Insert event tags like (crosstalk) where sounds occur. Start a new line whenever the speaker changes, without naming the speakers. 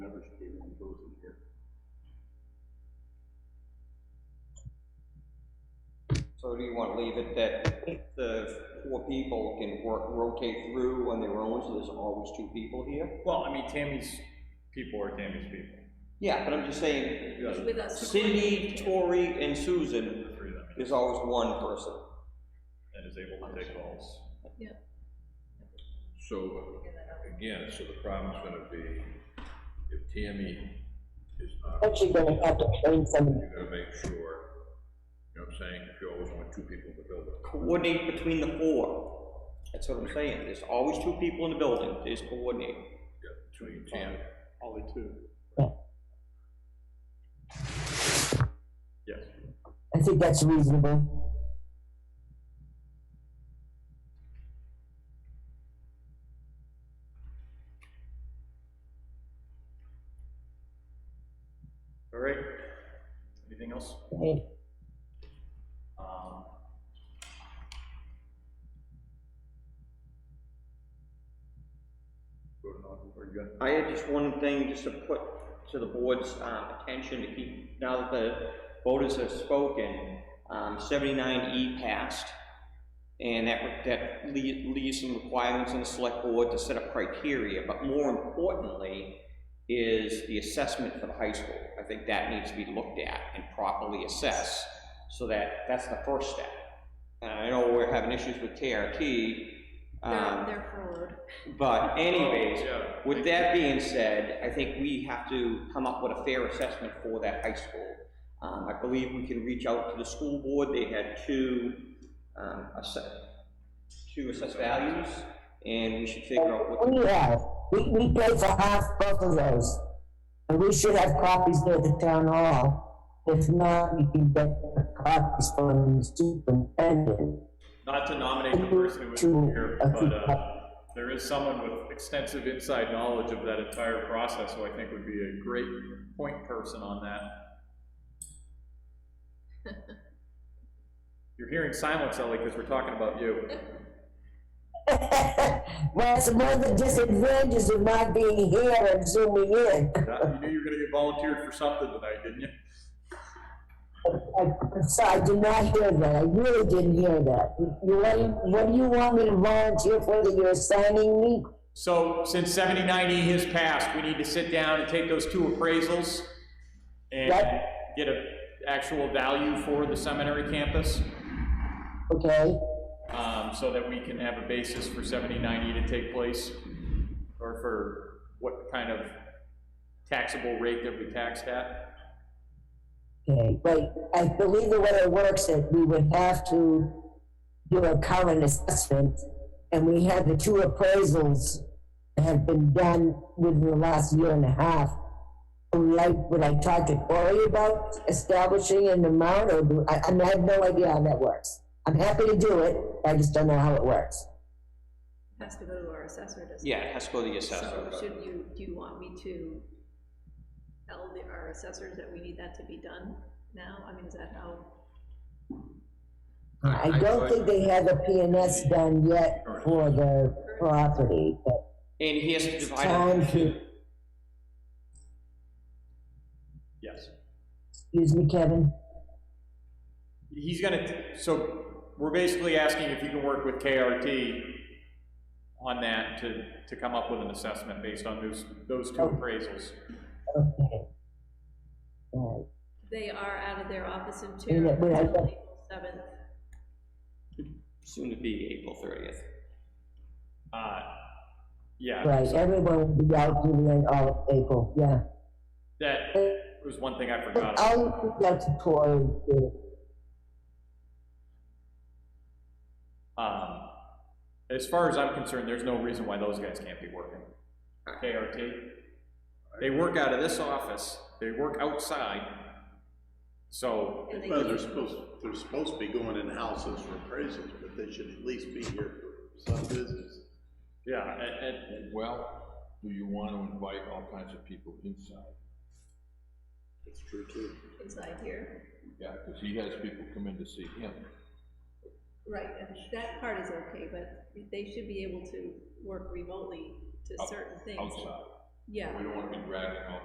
Or do you want to leave it that the four people can work, rotate through on their own, so there's always two people here?
Well, I mean, Tammy's people are Tammy's people.
Yeah, but I'm just saying,
You guys
with
Uh,
us.
Cindy, Tori, and Susan,
are free, I mean,
there's always one person.
and is able to take calls.
So, again, so the problem's gonna be if Tammy is not,
Actually, gonna have to train someone.
you're gonna make sure, you know what I'm saying, if you always want two people in the building.
Coordinate between the four. That's what I'm saying, there's always two people in the building, there's coordinate.
Yeah, Between Tammy,
Only two. Yes.
I think that's reasonable.
All right. Anything else?
Right.
Um, Voting on, are you good?
I had just one thing just to put to the board's um, attention to keep, now that the voters have spoken, um, 79E passed, and that, that lea- leaves some requirements on the select board to set up criteria, but more importantly is the assessment for the high school. I think that needs to be looked at and properly assessed, so that, that's the first step. And I know we're having issues with KRT,
They're,
um,
they're forward.
but anyways,
Yeah.
with that being said, I think we have to come up with a fair assessment for that high school. Um, I believe we can reach out to the school board, they had two, um, assess, two assessed values, and we should figure out what,
We have, we, we pay for half both of those. And we should have copies there at the town hall. If not, we can get copies from the superintendent. (laughs)
Not to nominate the person who was here, but, uh, there is someone with extensive inside knowledge of that entire process, who I think would be a great point person on that. You're hearing silence, Ellie, because we're talking about you.
That's one of the disadvantages of not being here and zooming in.
That- You knew you were gonna get volunteered for something tonight, didn't you?
I- I'm sorry, I did not hear that, I really didn't hear that. You, you want- what do you want me to volunteer for that you're assigning me?
So since seventy-nine E has passed, we need to sit down and take those two appraisals and
Yep.
get a actual value for the seminary campus,
Okay,
um, so that we can have a basis for seventy-nine E to take place, or for what kind of taxable rate that we taxed at.
okay, but I believe the way it works is we would have to do a current assessment, and we had the two appraisals that have been done within the last year and a half. Like, would I talk to Cory about establishing an amount, or do, I, I mean, I have no idea how that works. I'm happy to do it, I just don't know how it works.
Has to go to our assessor, doesn't it?
yeah, it has to go to the assessor.
So should you, do you want me to tell the, our assessors that we need that to be done now? I mean, is that how?
I don't think they have a PNS done yet for the property, but
And he has to
it's
divide
time
it,
to,
Yes.
excuse me, Kevin,
He's gonna, t- so we're basically asking if you can work with KRT on that to, to come up with an assessment based on those, those two
Oh.
appraisals.
okay. All
They are out of their office in
Yeah,
two,
yeah, but I-
until April seventh.
soon to be April thirtieth.
Uh, yeah,
right, right, everyone will be out during all of April, yeah.
that was one thing I
But
forgot.
I'll, that's Cory,
Um, as far as I'm concerned, there's no reason why those guys can't be working. KRT. They work out of this office, they work outside. So,
And they
Well, they're
use-
supposed, they're supposed to be going in houses for appraisals, but they should at least be here for some business.
yeah, and, and
Well, do you want to invite all kinds of people inside?
That's true too.
Inside here,
Yeah, because he has people come in to see him.
right, and that part is okay, but they should be able to work remotely to
Out-
Oh,
certain things.
outside.
Yeah.
We don't want to be dragging all